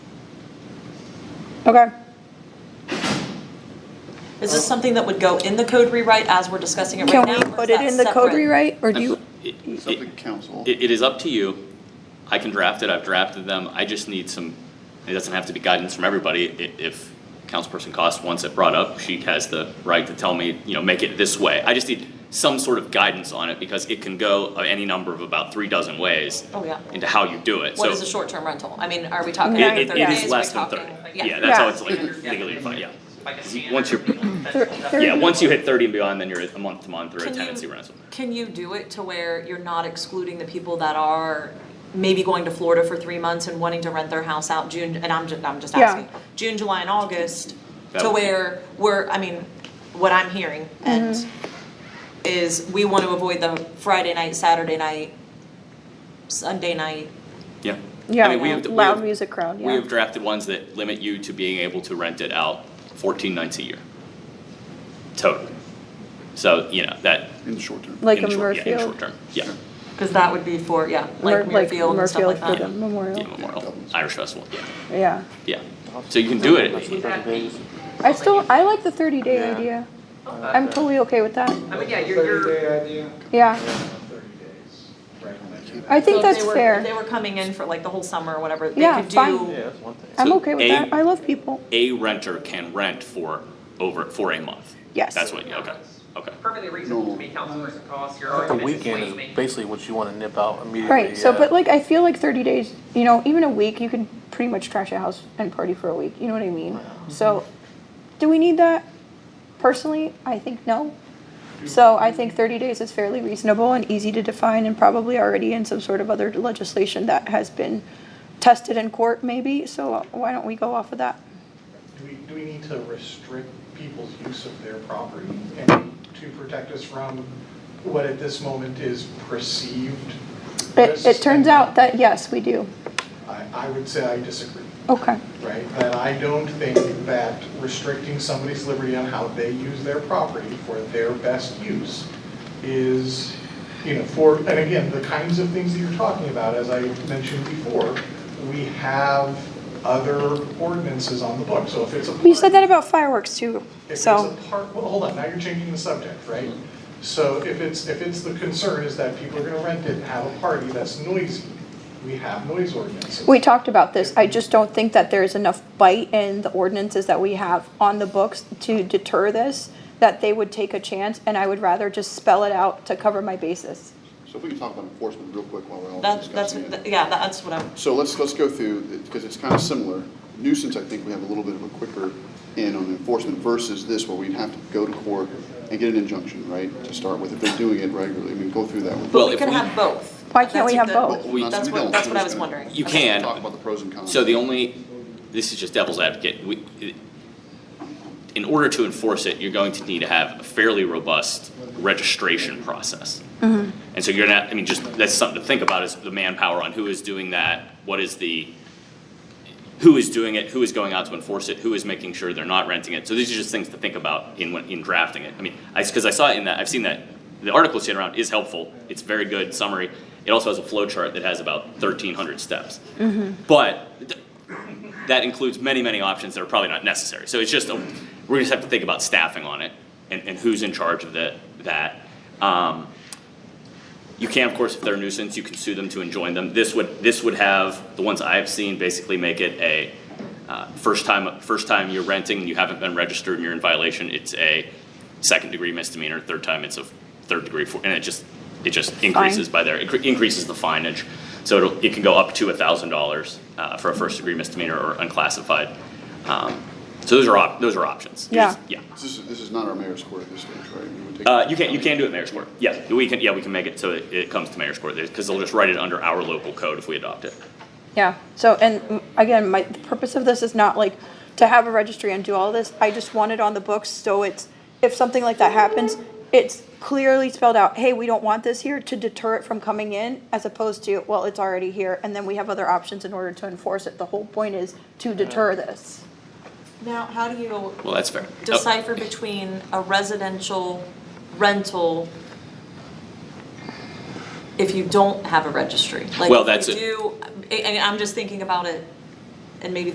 Okay. Is this something that would go in the code rewrite as we're discussing it right Can now? we or is put it that in the code separate? rewrite, or do you, It- It's up to council. It, it is up to you. I can draft it, I've drafted them, I just need some, it doesn't have to be guidance from everybody. I- If Councilperson Cost wants it brought up, she has the right to tell me, you know, make it this way. I just need some sort of guidance on it because it can go any number of about three dozen ways Oh, yeah. into how you do it, so. What is a short-term rental? I mean, are we talking It, thirty it- days? it Are is we less than talking- thirty. yeah. Yeah, that's how Yeah. it's legally legally defined, yeah. Like a standard. Once you're- you're. Yeah, once you hit thirty and beyond, then you're at a month to month or a Can you- tenancy rental. Can you do it to where you're not excluding the people that are maybe going to Florida for three months and wanting to rent their house out June, and I'm just, I'm just Yeah. asking. June, July, and August, That to would- where we're, I mean, what I'm hearing Mm-hmm. and is we want to avoid the Friday night, Saturday night, Sunday night. Yeah. I mean, we yeah, have- we loud have- music crowd, We yeah. have drafted ones that limit you to being able to rent it out fourteen nights a year. Total. So, you know, that. In the short term. Like in a short- yeah, In Murfield? short term, yeah. Sure. Cause that would be for, yeah, like Mer- Muirfield and stuff like Murfield that. for the Yeah, memorial, Memorial, Irish Festival, yeah, yeah. yeah. So you can do it, I still, I like the thirty day Yeah. idea, I'm totally okay with that, I mean, yeah, you're, you're. you're- yeah, Thirty days. Right. I think So if that's they were- If they fair, were coming in for like the whole summer or whatever, they Yeah, could do. fine. that's one thing. I'm So okay with A- that, I love people, a renter can rent for over, for a month. Yes. That's what, okay, okay. Perfectly reasonable to me, Councilperson Cost, your The argument is weekend is waiving. basically what you wanna nip out immediately. right, so, yeah. but like, I feel like thirty days, you know, even a week, you can pretty much trash a house and party for a week, you know what I mean? So, do we need that? Personally, I think no, so I think thirty days is fairly reasonable and easy to define and probably already in some sort of other legislation that has been tested in court maybe, so why don't we go off of that? Do we, do we need to restrict people's use of their property and to protect us from what at this moment is perceived It, it risks? turns out that yes, we do. I, I would say I disagree, Okay. right? That I don't think that restricting somebody's liberty on how they use their property for their best use is, you know, for, and again, the kinds of things that you're talking about, as I mentioned before, we have other ordinances on the book, so if it's a. You said park- that about fireworks too, If it's so, a part, well, hold on, now you're changing the subject, right? So if it's, if it's the concern is that people are gonna rent it, and have a party that's noisy, we have noise ordinances. we talked about this, I just don't think that there is enough bite in the ordinances that we have on the books to deter this, that they would take a chance, and I would rather just spell it out to cover my bases. So if we can talk about enforcement real quick while we're all That's, that's, discussing it. yeah, that's what I'm. So let's, let's go through, because it's kind of similar. Nuisance, I think we have a little bit of a quicker in on enforcement versus this where we'd have to go to court and get an injunction, right? To start with, if they're doing it regularly, I mean, go through that. with- Well, But we if could we- have both. Why can't we That's have the- both? Well, we That's we what- don't. that's what I We're was just gonna- wondering. You Okay. can. Talk about the pros and cons. So the only, this is just devil's advocate, we, in order to enforce it, you're going to need to have a fairly robust registration process. And so you're not, I mean, just, that's something to think about is the manpower on who is doing that, what is the, who is doing it, who is going out to enforce it, who is making sure they're not renting it. So these are just things to think about in, when- in drafting it. I mean, I, because I saw it in that, I've seen that, the article sitting around is helpful, it's very good summary. It also has a flow chart that has about thirteen hundred steps. But th- that includes many, many options that are probably not necessary. So it's just, a- we're just have to think about staffing on it and, and who's in charge of the, that. Um, you can, of course, if they're a nuisance, you can sue them to enjoin them. This would, this would have, the ones I've seen basically make it a, uh, first time, first time you're renting and you haven't been registered and you're in violation, it's a second degree misdemeanor, third time it's a third degree, four- and it just, it just increases by there, It increases the fineage. So it'll, it can go up to a thousand dollars, uh, for a first degree misdemeanor or unclassified. Um, So those are op, those are options. You Yeah. just- Yeah. This is, this is not our mayor's court at this stage, right? We would take- Uh, you can, you can do it mayor's court. Yes, we can, yeah, we can make it so it, it comes to mayor's court, because they'll just write it under our local code if we adopt it. Yeah, so, and mm, again, my, the purpose of this is not like to have a registry and do all this, I just want it on the books, so it's, if something like that happens, it's clearly spelled out, hey, we don't want this here, to deter it from coming in, as opposed to, well, it's already here, and then we have other options in order to enforce it, the whole point is to deter this. Now, how do you Well, that's fair. Oh, decipher between a residential rental if you don't have a registry? Like, Well, if that's you it. do- And I'm just thinking about it, and maybe